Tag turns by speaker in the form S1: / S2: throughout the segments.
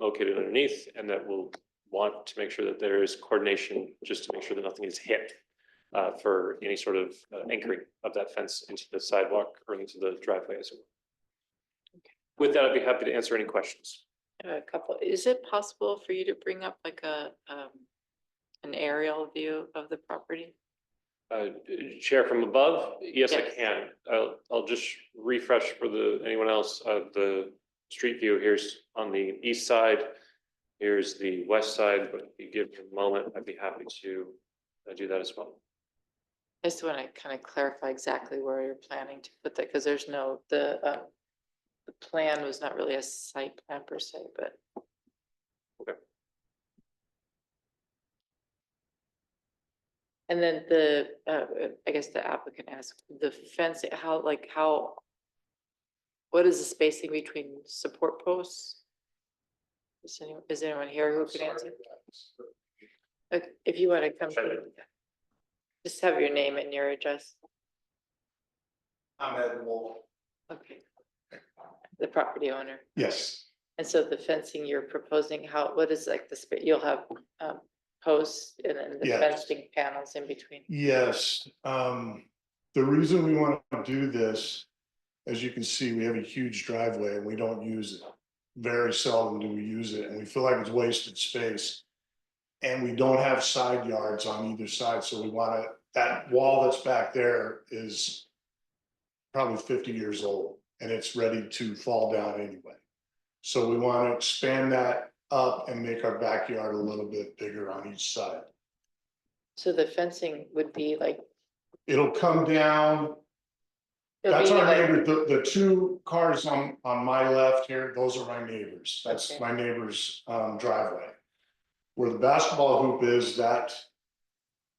S1: located underneath and that will want to make sure that there is coordination, just to make sure that nothing is hit uh, for any sort of uh, anchoring of that fence into the sidewalk or into the driveway as well. With that, I'd be happy to answer any questions.
S2: A couple, is it possible for you to bring up like a, um, an aerial view of the property?
S1: Uh, Chair from above, yes, I
S2: Yes.
S1: can. I'll, I'll just refresh for the, anyone else, uh, the street view. Here's on the east side. Here's the west side, but if you give me a moment, I'd be happy to uh, do that as well.
S2: I just want to kind of clarify exactly where you're planning to put that, because there's no, the, um, the plan was not really a site plan per se, but.
S1: Okay.
S2: And then the, uh, I guess the applicant asked, the fence, how, like, how, what is the spacing between support posts? Is anyone, is anyone here who could answer? Like, If you want to come.
S1: Sure.
S2: Just have your name and your address.
S3: I'm Ed Wolf.
S2: Okay. The property owner.
S3: Yes,
S2: And so the fencing you're proposing, how, what is like the, spa- you'll have um posts and then the
S3: Yes.
S2: fencing panels in between?
S3: yes. Um, the reason we want to do this, as you can see, we have a huge driveway and we don't use it. Very seldom do we use it and we feel like it's wasted space. And we don't have side yards on either side, so we want to, that wall that's back there is probably fifty years old and it's ready to fall down anyway. So we want to expand that up and make our backyard a little bit bigger on each side.
S2: So the fencing would be like.
S3: It'll come down,
S2: it'll
S3: that's
S2: be
S3: our
S2: like-
S3: neighbor, the, the two cars on, on my left here, those are my neighbors, that's
S2: Okay.
S3: my neighbor's, um, driveway. Where the basketball hoop is, that,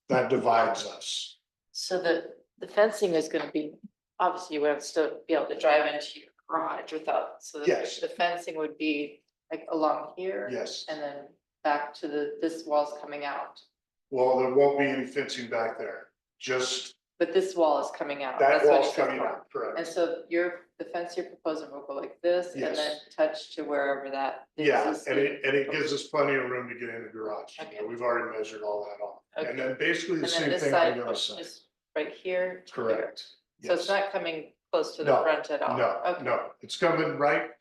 S3: that divides us,
S2: So the, the fencing is gonna be, obviously you would have to still be able to drive into your garage without, so the-
S3: Yes.
S2: the fencing would be like along here.
S3: yes.
S2: And then back to the, this wall's coming out,
S3: Well, there won't be any fencing back there, just
S2: but this wall is coming out.
S3: that
S2: Oh, That's what it
S3: wall's
S2: says
S3: coming
S2: wall.
S3: out, correct?
S2: And so your, the fence you're proposing will go like this and then
S3: Yes.
S2: touch to wherever that.
S3: Yeah,
S2: existing-
S3: and it, and it gives us plenty of room to get in the garage, you
S2: Okay.
S3: know, we've already measured all that off. And
S2: Okay.
S3: then basically
S2: And
S3: the
S2: then
S3: same
S2: this
S3: thing
S2: side
S3: on the other
S2: goes
S3: side,
S2: just Right here. to here.
S3: correct?
S2: So it's
S3: Yes.
S2: not coming close to the
S3: No,
S2: front at all?
S3: No,
S2: Oh, Okay,
S3: no, it's coming right,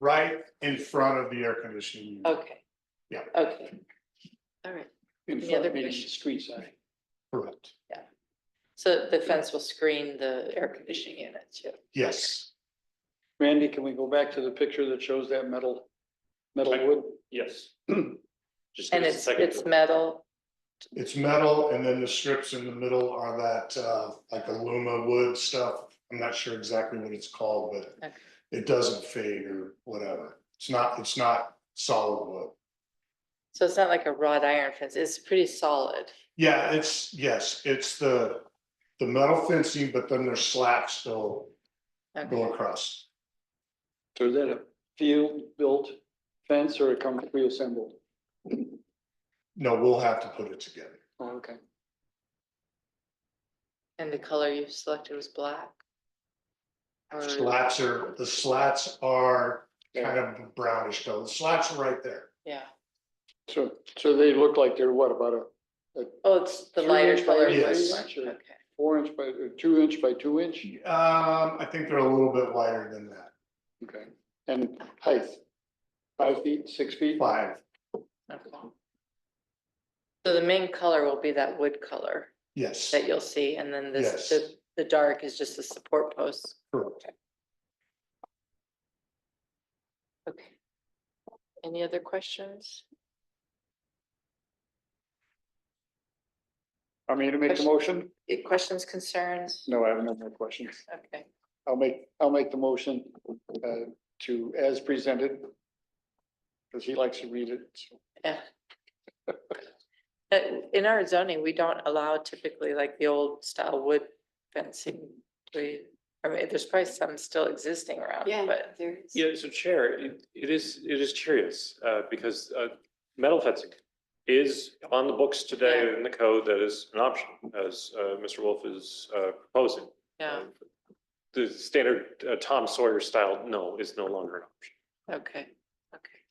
S3: right in front of the air conditioning. unit.
S2: Okay.
S3: Yeah.
S2: Okay. All right.
S4: In
S2: Any
S4: front
S2: other
S4: of the
S2: questions?
S4: street sign.
S3: Correct,
S2: So the fence will screen the air conditioning unit too?
S3: yes,
S4: Randy, can we go back to the picture that shows that metal, metal
S1: Like-
S4: wood?
S1: Yes. Just give
S2: And
S1: us a
S2: it's,
S1: second.
S2: it's metal?
S3: it's metal, and then the strips in the middle are that, uh, like aluma wood stuff. I'm not sure exactly what it's called, but
S2: Okay.
S3: it doesn't fade or whatever, it's not, it's not solid wood.
S2: So it's not like a wrought iron fence? It's pretty solid?
S3: Yeah, it's, yes, it's the, the metal fencing, but then there's slats still
S2: Okay.
S3: go across.
S4: So is that a field-built fence or a company reassembled?
S3: No, we'll have to put it together,
S4: Oh, okay.
S2: And the color you selected was black? Or-
S3: slats are, the slats are kind of brownish though. The slats are right there.
S2: Yeah.
S4: So, so they look like they're what, about a
S2: Oh, it's the
S4: Three
S2: lighter
S4: inch by
S2: color.
S3: three
S2: version.
S4: inch or-
S2: Okay.
S4: four-inch by, or two-inch by two-inch?
S3: Um, I think they're a little bit wider than that,
S4: Okay. And height? Five feet, six feet?
S3: five,
S2: Okay. So the main color will be that wood color
S3: yes,
S2: that you'll see, and then this, the,
S3: Yes.
S2: the dark is just the support posts.
S3: correct.
S2: Okay. Any other questions?
S4: I mean, to make the motion?
S2: Eh, Questions, concerns?
S4: No, I have no more questions.
S2: Okay,
S4: I'll make, I'll make the motion uh, to, as presented. Because he likes to read it. so.
S2: yeah. Uh, in our zoning, we don't allow typically like the old style wood fencing. We, I mean, there's probably some still existing around, but
S5: there is.
S1: Yeah, so Chair, it, it is, it is curious, uh, because, uh, metal fencing is on the books today in the code that is an option, as, uh, Mr. Wolf is, uh, proposing.
S2: yeah,
S1: uh, The standard uh, Tom Sawyer style, no, is no longer an option.
S2: okay, okay.